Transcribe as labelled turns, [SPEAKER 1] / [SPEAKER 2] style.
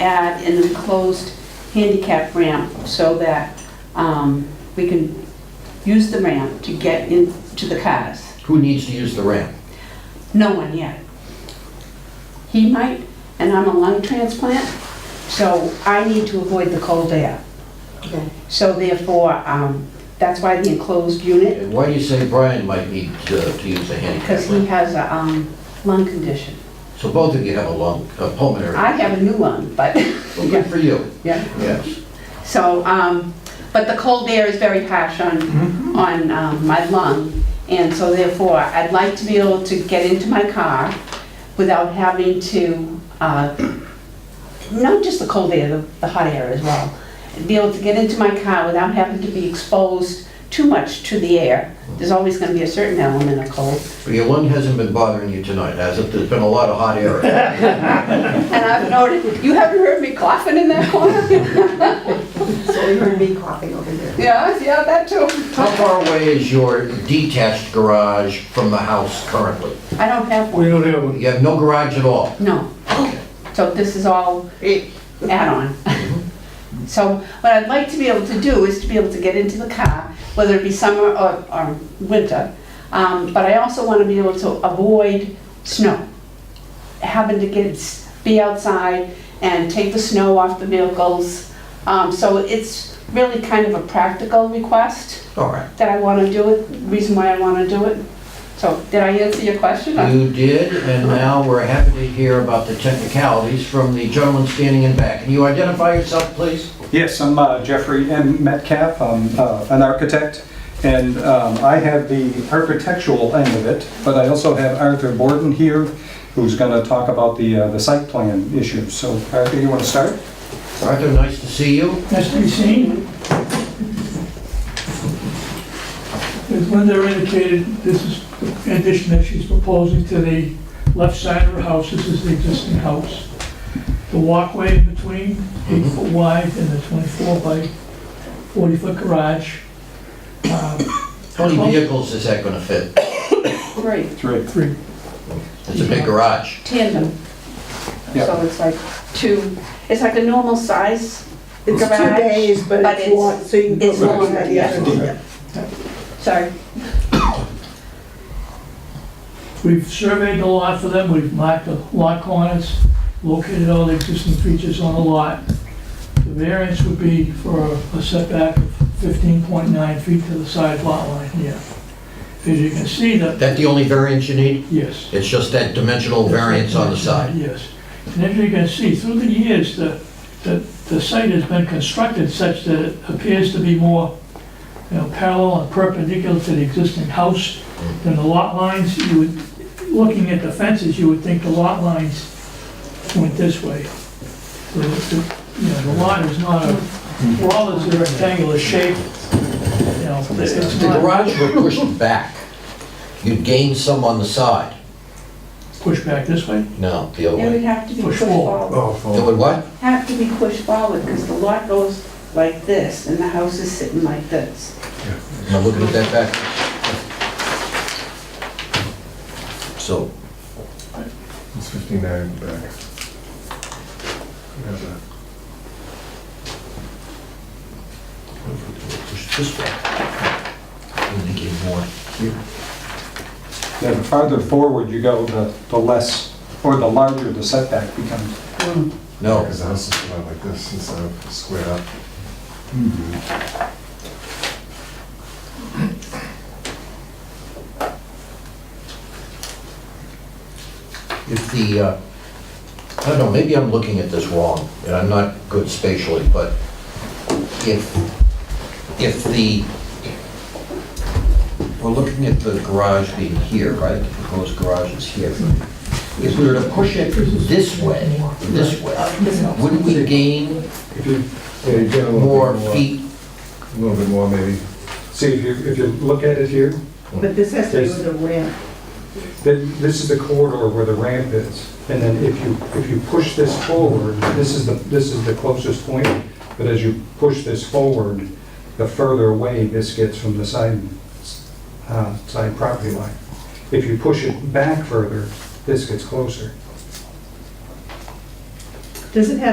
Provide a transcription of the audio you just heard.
[SPEAKER 1] add an enclosed handicap ramp so that um, we can use the ramp to get into the cars.
[SPEAKER 2] Who needs to use the ramp?
[SPEAKER 1] No one yet. He might, and I'm a lung transplant, so I need to avoid the cold air.
[SPEAKER 3] Okay.
[SPEAKER 1] So therefore, um, that's why the enclosed unit,
[SPEAKER 2] And why do you say Brian might need to to use a handicap
[SPEAKER 1] because he
[SPEAKER 2] ramp?
[SPEAKER 1] has a um, lung condition.
[SPEAKER 2] So both of you have a lung, a pulmonary.
[SPEAKER 1] I have a new lung, but,
[SPEAKER 2] Well, good for you,
[SPEAKER 1] yeah.
[SPEAKER 2] yes.
[SPEAKER 1] So, um, but the cold air is very harsh on, on um, my lung, and so therefore, I'd like to be able to get into my car without having to, uh, not just the cold air, the- the hot air as well, be able to get into my car without having to be exposed too much to the air. There's always gonna be a certain element of cold,
[SPEAKER 2] But your lung hasn't been bothering you tonight, has it? There's been a lot of hot air.
[SPEAKER 1] and I've noted, you haven't heard me coughing in that corner?
[SPEAKER 3] So you heard me coughing over here.
[SPEAKER 1] Yeah, yeah, that too.
[SPEAKER 2] How far away is your detached garage from the house currently?
[SPEAKER 1] I don't have one,
[SPEAKER 4] We don't have one.
[SPEAKER 2] You have no garage at all?
[SPEAKER 1] no. So this is all add-on. So what I'd like to be able to do is to be able to get into the car, whether it be summer or, or winter. Um, but I also want to be able to avoid snow. Having to get, be outside and take the snow off the vehicles. Um, so it's really kind of a practical request
[SPEAKER 2] All right.
[SPEAKER 1] that I want to do it, reason why I want to do it. So did I answer your question?
[SPEAKER 2] You did, and now we're happy to hear about the technicalities from the gentleman standing in back. Can you identify yourself, please?
[SPEAKER 5] Yes, I'm uh, Jeffrey M. Metcalf, I'm uh, an architect, and um, I have the architectural end of it, but I also have Arthur Borden here, who's going to talk about the uh, the site plan issues. So Arthur, you want to start?
[SPEAKER 2] Arthur, nice to see you.
[SPEAKER 4] Nice to be seen. As Linda indicated, this is the addition that she's proposing to the left side of her house. This is the existing house. The walkway in between, eight foot wide, and the 24 by 40 foot garage. Um,
[SPEAKER 2] How many vehicles is that gonna fit?
[SPEAKER 1] Right,
[SPEAKER 5] Three.
[SPEAKER 4] Three.
[SPEAKER 2] It's a big garage.
[SPEAKER 1] tandem.
[SPEAKER 5] Yeah.
[SPEAKER 1] So it's like two, it's like a normal size
[SPEAKER 3] It's two
[SPEAKER 1] Garage,
[SPEAKER 3] days, but
[SPEAKER 1] but
[SPEAKER 3] it's
[SPEAKER 1] it's-
[SPEAKER 3] long, so you can.
[SPEAKER 1] it's
[SPEAKER 3] put one
[SPEAKER 1] longer,
[SPEAKER 3] at the other.
[SPEAKER 5] yeah.
[SPEAKER 1] Sorry.
[SPEAKER 4] We've surveyed the lot for them, we've marked the lot corners, located all the existing features on the lot. The variance would be for a setback of 15.9 feet to the side lot line here. As you can see, that,
[SPEAKER 2] That the only variance you need?
[SPEAKER 4] yes.
[SPEAKER 2] It's just that dimensional variance on the side.
[SPEAKER 4] Yes. And as you can see, through the years, the, the, the site has been constructed such that it appears to be more, you know, parallel and perpendicular to the existing house than the lot lines. You would, looking at the fences, you would think the lot lines went this way. The- the- You know, the lot is not a, for all its rectangular shape, you know,
[SPEAKER 2] If
[SPEAKER 4] it's
[SPEAKER 2] the
[SPEAKER 4] not
[SPEAKER 2] garage were pushed back, you'd gain some on the side.
[SPEAKER 4] pushed back this way.
[SPEAKER 2] No, the other
[SPEAKER 1] It would
[SPEAKER 2] way.
[SPEAKER 1] have to be
[SPEAKER 4] Push
[SPEAKER 1] pushed forward.
[SPEAKER 2] It would what?
[SPEAKER 1] Have to be pushed forward because the lot goes like this and the house is sitting like this.
[SPEAKER 2] Now look at that back. So,
[SPEAKER 6] It's 59 back. Yeah, back.
[SPEAKER 2] push this way. Indicate more.
[SPEAKER 5] Yeah, the farther forward you go, the the less, or the larger the setback becomes.
[SPEAKER 2] No,
[SPEAKER 6] Because the house is about like this instead of squared up.
[SPEAKER 2] if the, uh, I don't know, maybe I'm looking at this wrong, and I'm not good spatially, but if, if the, we're looking at the garage being here, right? The proposed garage is here. If we were to push it this way, this way, wouldn't we gain
[SPEAKER 6] Yeah, you get a little bit
[SPEAKER 2] more feet?
[SPEAKER 6] A little bit more maybe.
[SPEAKER 5] See, if you, if you look at it here,
[SPEAKER 3] But this has to do with the ramp.
[SPEAKER 5] then this is the corridor where the ramp is. And then if you, if you push this forward, this is the, this is the closest point, but as you push this forward, the further away this gets from the side, uh, side property line. If you push it back further, this gets closer.
[SPEAKER 3] Does it have